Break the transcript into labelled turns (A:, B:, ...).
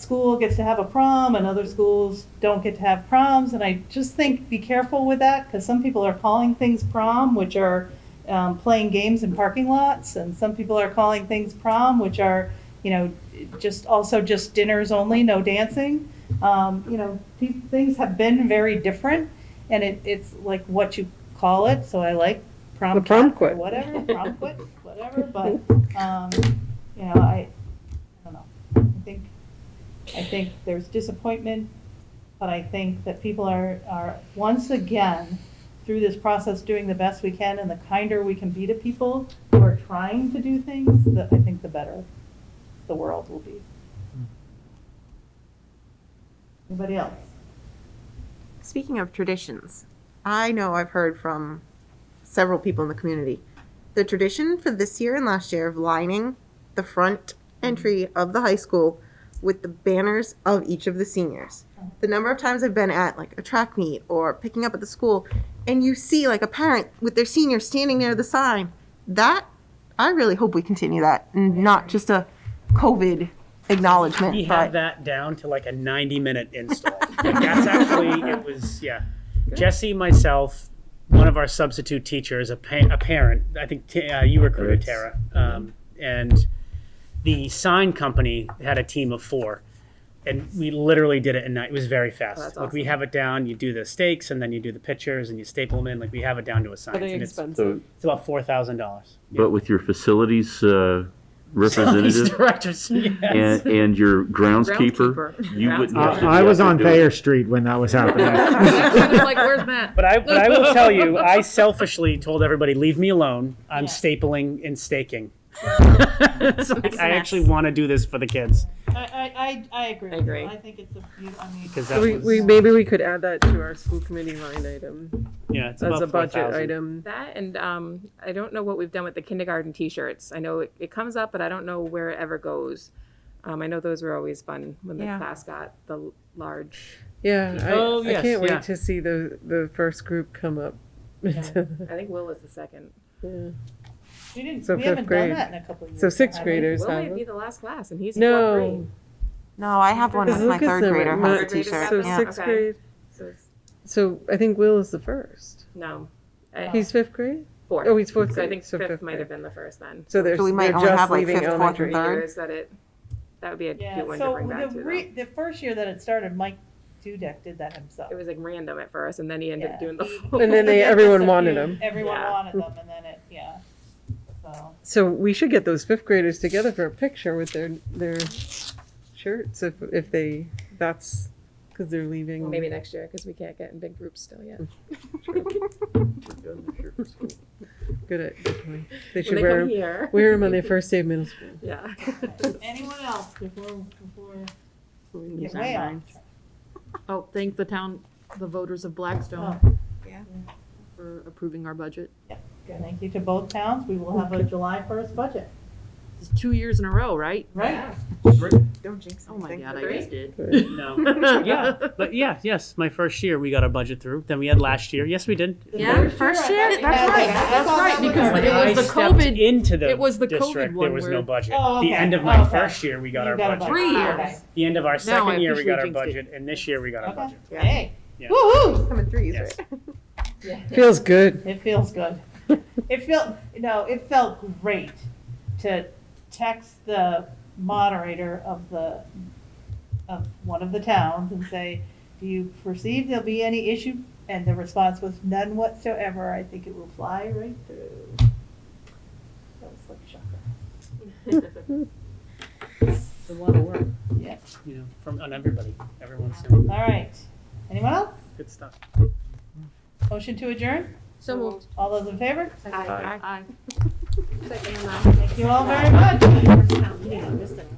A: school gets to have a prom and other schools don't get to have proms. And I just think be careful with that because some people are calling things prom, which are um, playing games in parking lots, and some people are calling things prom, which are you know just also just dinners only, no dancing. Um, you know, these things have been very different, and it, it's like what you call it. So I like prom,
B: The prom
A: quit,
B: quit.
A: whatever, prom quit, whatever. But um, you know, I, I don't know. I think I think there's disappointment, but I think that people are, are once again, through this process, doing the best we can, and the kinder we can be to people who are trying to do things, that I think the better the world will be. Anybody else?
C: Speaking of traditions, I know I've heard from several people in the community the tradition for this year and last year of lining the front entry of the high school with the banners of each of the seniors. The number of times I've been at like a track meet or picking up at the school and you see like a parent with their senior standing near the sign, that I really hope we continue that and not just a COVID acknowledgement.
D: We
C: but-
D: have that down to like a 90 minute install. Like, that's actually, it was, yeah. Jesse, myself, one of our substitute teachers, a, pa- a parent, I think t- uh, you recruited Tara, um, and the sign company had a team of four. And we literally did it in night. It was very fast.
C: that's
D: Like we have it down. You do the stakes, and then you do the pictures, and you staple them in. Like we have it down to a science.
B: Pretty
D: and it's,
B: expensive.
E: So,
D: it's about four thousand dollars.
E: but with your facilities uh, representative
D: directors. Yes.
E: and, and your groundskeeper, you wouldn't have to.
F: Uh, I I
E: be
F: was
E: out
F: on
E: there doing-
F: Thayer Street when that was happening.
G: like, where's Matt?
D: But I, but I will tell you, I selfishly told everybody, leave me alone. I'm
A: Yeah.
D: stapling and staking. It's like, I actually want to do this for the kids
A: I, I, I agree.
G: I agree.
A: I think it's a, beaut- I mean.
D: because
B: So
D: that
B: We,
D: was,
B: we, maybe we could add that to our school committee line item
D: yeah, it's
B: as
D: about
B: a budget
D: 4,000.
B: item.
G: That and um, I don't know what we've done with the kindergarten T-shirts. I know it, it comes up, but I don't know where it ever goes. Um, I know those were always fun when the
C: Yeah.
G: class got the l- large.
B: Yeah,
D: Oh,
B: I, I
D: yes,
B: can't
D: yeah.
B: wait to see the, the first group come up.
G: I think Will is the second.
A: We didn't,
B: so
A: we
B: fifth
A: haven't done
B: grade.
A: that in a couple of years.
B: So sixth
A: have we?
B: graders
G: Will
B: have
G: might be
B: it.
G: the last class, and he's in fourth
B: No.
G: grade.
C: No, I have one.
B: Because
C: My
B: look at
C: third
B: them,
C: grader
B: my-
C: has a t-shirt.
B: So
C: yeah.
B: sixth
G: Okay.
B: grade,
G: So it's,
B: so I think Will is the first.
G: no, I,
B: He's fifth grade?
G: fourth.
B: Oh, he's fourth
G: so I
B: grade.
G: think
B: so
G: fifth might
B: grade.
G: have been the first then.
B: So they're,
C: So we might
B: they're
C: only have,
B: just
C: like,
B: leaving
C: fifth, fourth,
B: elementary.
C: and third?
G: Years that it that would be a
A: Yeah,
G: cute one to
A: so
G: bring back
A: the,
G: to.
A: re-
G: though.
A: the first year that it started, Mike Dudek did that himself.
G: It was like random at first, and then he ended
A: Yeah.
G: up doing the full.
B: And then they-
A: Yeah, just
B: everyone
A: a
B: wanted
A: few-
B: them.
A: Everyone
G: Yeah.
A: wanted them, and then it, yeah. So,
B: So we should get those fifth graders together for a picture with their, their shirts if, if they, that's, because they're leaving.
G: Maybe next year, because we can't get in big groups still yet.
B: Good at, good point. They
G: When
B: should
G: they
B: wear,
G: come here.
B: wear them on their first day of middle school.
G: Yeah.
A: anyone else before before we get
C: our
A: way off?
C: minds.
A: track?
H: Oh, thank the town, the voters of Blackstone
C: Yeah.
H: for approving our budget.
A: Thank you to both towns. We will have a July first budget,
H: It's two years in a row, right?
A: right?
C: Don't jinx
H: Oh my
C: anything.
H: God, I just did.
D: No, yeah, but yeah, yes, my first year we got our budget through. Then we had last year. Yes, we did.
H: Yeah,
A: first year? That's right. That's right, because
D: When
H: it
D: I
H: was the
D: stepped
H: COVID
D: into the
H: it was the COVID
D: district,
H: one
D: there was
H: where-
D: no budget.
A: Oh,
D: The
A: okay.
D: end of my
A: Oh, okay.
D: first year, we got
A: You
D: our
A: a
D: budget.
A: budget.
H: Three
A: Okay.
H: years.
D: The end of our second year, we
H: officially
D: got our
H: jinxed it.
D: budget, and this year we got our
A: Okay.
D: budget.
C: Yeah.
A: Hey,
D: Yeah.
A: woohoo!
C: Come in threes,
D: Yes.
C: right?
B: Feels good.
A: It feels good. It felt, no, it felt great to text the moderator of the, of one of the towns and say, do you perceive there'll be any issue? And the response was none whatsoever. I think it will fly right through. That was like shocker.
D: It's a lot of work,
A: Yeah.
D: you know, from on everybody. Everyone's doing
A: All right. Anyone else?
D: good stuff.
A: Motion to adjourn?
H: So moved.
A: All those in favor?
C: Aye.
H: Aye.
A: Thank you all very much.
C: Yeah, I missed it.